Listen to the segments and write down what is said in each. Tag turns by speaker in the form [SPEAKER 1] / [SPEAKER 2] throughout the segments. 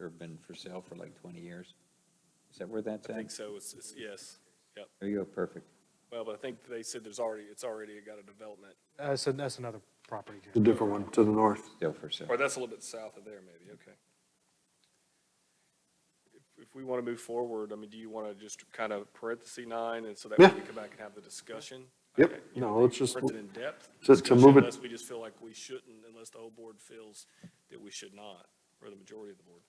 [SPEAKER 1] or been for sale for like 20 years? Is that where that's
[SPEAKER 2] I think
[SPEAKER 1] at?
[SPEAKER 2] so, it's, it's, yes.
[SPEAKER 1] There you go, perfect.
[SPEAKER 2] Well, but I think they said there's already, it's already got a development,
[SPEAKER 3] Uh, so that's another property.
[SPEAKER 4] A different one to the north.
[SPEAKER 1] Still for sale.
[SPEAKER 2] or that's a little bit south of there maybe, okay. If- If we want to move forward, I mean, do you want to just kind of parenthesis nine and so that way
[SPEAKER 4] Yeah.
[SPEAKER 2] we come back and have the discussion?
[SPEAKER 4] Yep,
[SPEAKER 2] Okay, you know,
[SPEAKER 4] no, let's just-
[SPEAKER 2] Print it in depth.
[SPEAKER 4] to- to move
[SPEAKER 2] discussion,
[SPEAKER 4] it-
[SPEAKER 2] Unless we just feel like we shouldn't, unless the whole board feels that we should not, or the majority of the board.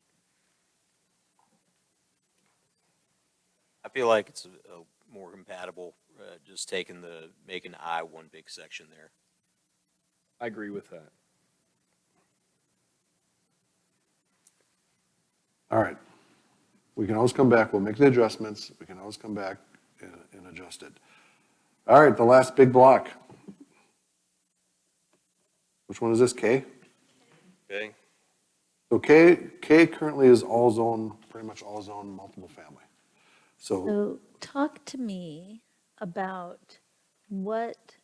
[SPEAKER 5] I feel like it's a- a more compatible, uh, just taking the, making I one big section there.
[SPEAKER 2] I agree with that.
[SPEAKER 4] All right. We can always come back, we'll make the adjustments, we can always come back and, and adjust it. All right, the last big block. Which one is this, K?
[SPEAKER 2] Okay.
[SPEAKER 4] So K, K currently is all zone, pretty much all zone, multiple family. So
[SPEAKER 6] So talk to me about what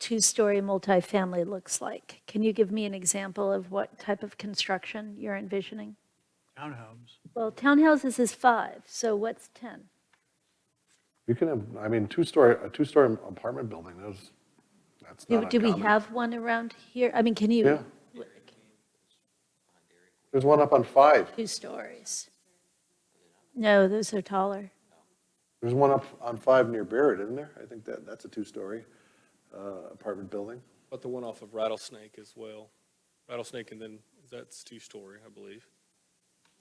[SPEAKER 6] two-story multifamily looks like. Can you give me an example of what type of construction you're envisioning?
[SPEAKER 3] Townhomes.
[SPEAKER 6] Well, townhouses is five, so what's 10?
[SPEAKER 4] you can have, I mean, two-story, a two-story apartment building, that's, that's
[SPEAKER 6] Do
[SPEAKER 4] not
[SPEAKER 6] do we
[SPEAKER 4] uncommon.
[SPEAKER 6] have one around here? I mean, can you,
[SPEAKER 4] Yeah. There's one up on five,
[SPEAKER 6] two stories? No, those are taller.
[SPEAKER 4] there's one up on five near Barrett, isn't there? I think that, that's a two-story uh, apartment building.
[SPEAKER 2] But the one off of Rattlesnake as well. Rattlesnake and then, that's two-story, I believe.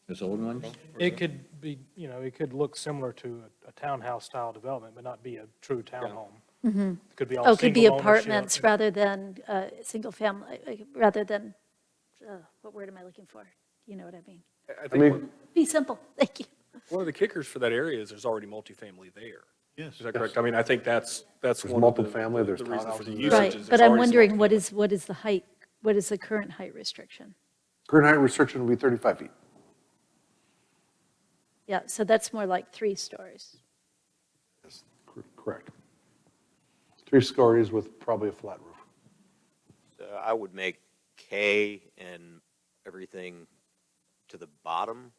[SPEAKER 1] Those old ones?
[SPEAKER 3] It could be, you know, it could look similar to a- a townhouse-style development, but not be a true townhome. It Could be all
[SPEAKER 6] Oh, could be
[SPEAKER 3] single ownership.
[SPEAKER 6] apartments rather than uh, single family, uh, rather than, uh, what word am I looking for? You know what I mean?
[SPEAKER 2] I- I
[SPEAKER 4] I
[SPEAKER 2] think one-
[SPEAKER 4] mean,
[SPEAKER 6] Be simple, thank you.
[SPEAKER 2] One of the kickers for that area is there's already multifamily there.
[SPEAKER 7] Yes.
[SPEAKER 2] Is that correct? I mean, I think that's, that's
[SPEAKER 4] There's
[SPEAKER 2] one of the.
[SPEAKER 4] multifamily, there's
[SPEAKER 2] the reason for the
[SPEAKER 4] townhouses.
[SPEAKER 2] usage
[SPEAKER 6] Right,
[SPEAKER 2] is
[SPEAKER 6] but
[SPEAKER 2] there's already
[SPEAKER 6] I'm
[SPEAKER 2] some
[SPEAKER 6] wondering, what
[SPEAKER 2] multifamily.
[SPEAKER 6] is, what is the height, what is the current height restriction?
[SPEAKER 4] current height restriction would be 35 feet.
[SPEAKER 6] Yeah, so that's more like three stories.
[SPEAKER 4] Yes, cor- Correct. Three stories with probably a flat roof.
[SPEAKER 5] So I would make K and everything to the bottom,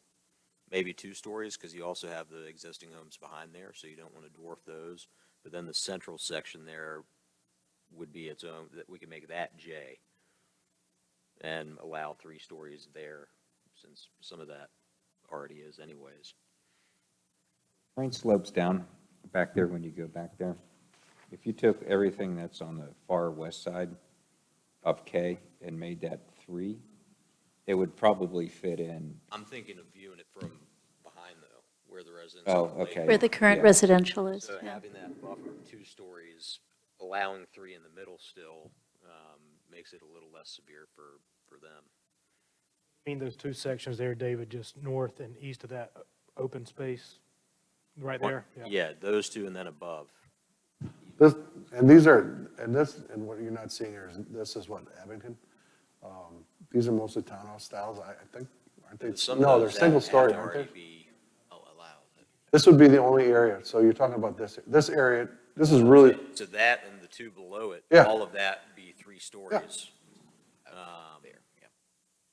[SPEAKER 5] maybe two stories, because you also have the existing homes behind there, so you don't want to dwarf those. But then the central section there would be its own, that we can make that J and allow three stories there, since some of that already is anyways.
[SPEAKER 1] Mine slopes down back there when you go back there. If you took everything that's on the far west side of K and made that three, it would probably fit in.
[SPEAKER 5] I'm thinking of viewing it from behind though, where the residents.
[SPEAKER 1] Oh,
[SPEAKER 5] on the lake
[SPEAKER 1] okay.
[SPEAKER 6] Where the current
[SPEAKER 1] Yeah.
[SPEAKER 6] residential is,
[SPEAKER 5] So
[SPEAKER 6] yeah.
[SPEAKER 5] having that buffer of two stories, allowing three in the middle still, um, makes it a little less severe for, for them.
[SPEAKER 3] I mean, those two sections there, David, just north and east of that uh, open space, right there.
[SPEAKER 5] Yeah, those two and then above.
[SPEAKER 4] This, and these are, and this, and what you're not seeing here is, this is what, Abington? Um, These are mostly townhouse styles, I, I think, aren't
[SPEAKER 5] But
[SPEAKER 4] they?
[SPEAKER 5] some of
[SPEAKER 4] No, they're
[SPEAKER 5] those have-
[SPEAKER 4] single story,
[SPEAKER 5] have to
[SPEAKER 4] aren't
[SPEAKER 5] already
[SPEAKER 4] they?
[SPEAKER 5] be al- allowed.
[SPEAKER 4] This would be the only area, so you're talking about this, this area, this is really,
[SPEAKER 5] So that and the two below it,
[SPEAKER 4] Yeah.
[SPEAKER 5] all of that be three stories. Um,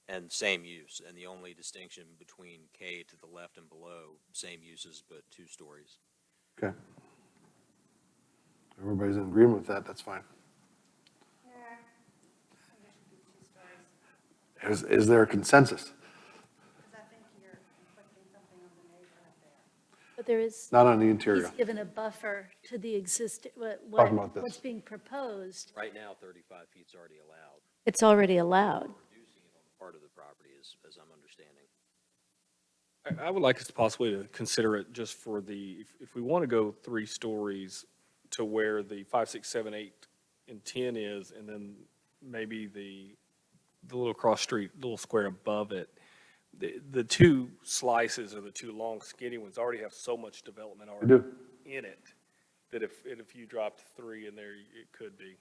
[SPEAKER 5] And same use, and the only distinction between K to the left and below, same uses but two stories.
[SPEAKER 4] okay. Everybody's in agreement with that, that's fine. Is, is there a consensus?
[SPEAKER 6] But there is,
[SPEAKER 4] Not on the
[SPEAKER 6] he's
[SPEAKER 4] interior.
[SPEAKER 6] given a buffer to the existing, what,
[SPEAKER 4] Talking about
[SPEAKER 6] what-
[SPEAKER 4] this.
[SPEAKER 6] what's being proposed.
[SPEAKER 5] Right now, thirty-five feet's already allowed.
[SPEAKER 6] It's already allowed.
[SPEAKER 5] reducing it on the part of the property, as, as I'm understanding.
[SPEAKER 2] I I would like us to possibly to consider it just for the, if, if we want to go three stories to where the five, six, seven, eight, and 10 is, and then maybe the, the little cross street, little square above it. The, the two slices or the two long skinny ones already have so much development already
[SPEAKER 4] do.
[SPEAKER 2] in it that if, and if you dropped three in there, it could be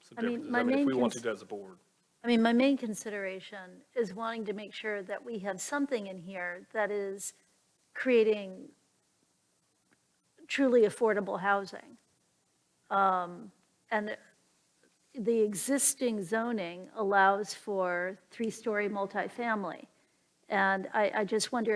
[SPEAKER 2] some
[SPEAKER 6] I mean,
[SPEAKER 2] differences.
[SPEAKER 6] my
[SPEAKER 2] I mean, if
[SPEAKER 6] main
[SPEAKER 2] we want
[SPEAKER 6] cons-
[SPEAKER 2] to as a board.
[SPEAKER 6] I mean, my main consideration is wanting to make sure that we have something in here that is creating truly affordable housing. Um, And the existing zoning allows for three-story multifamily. And I, I just wonder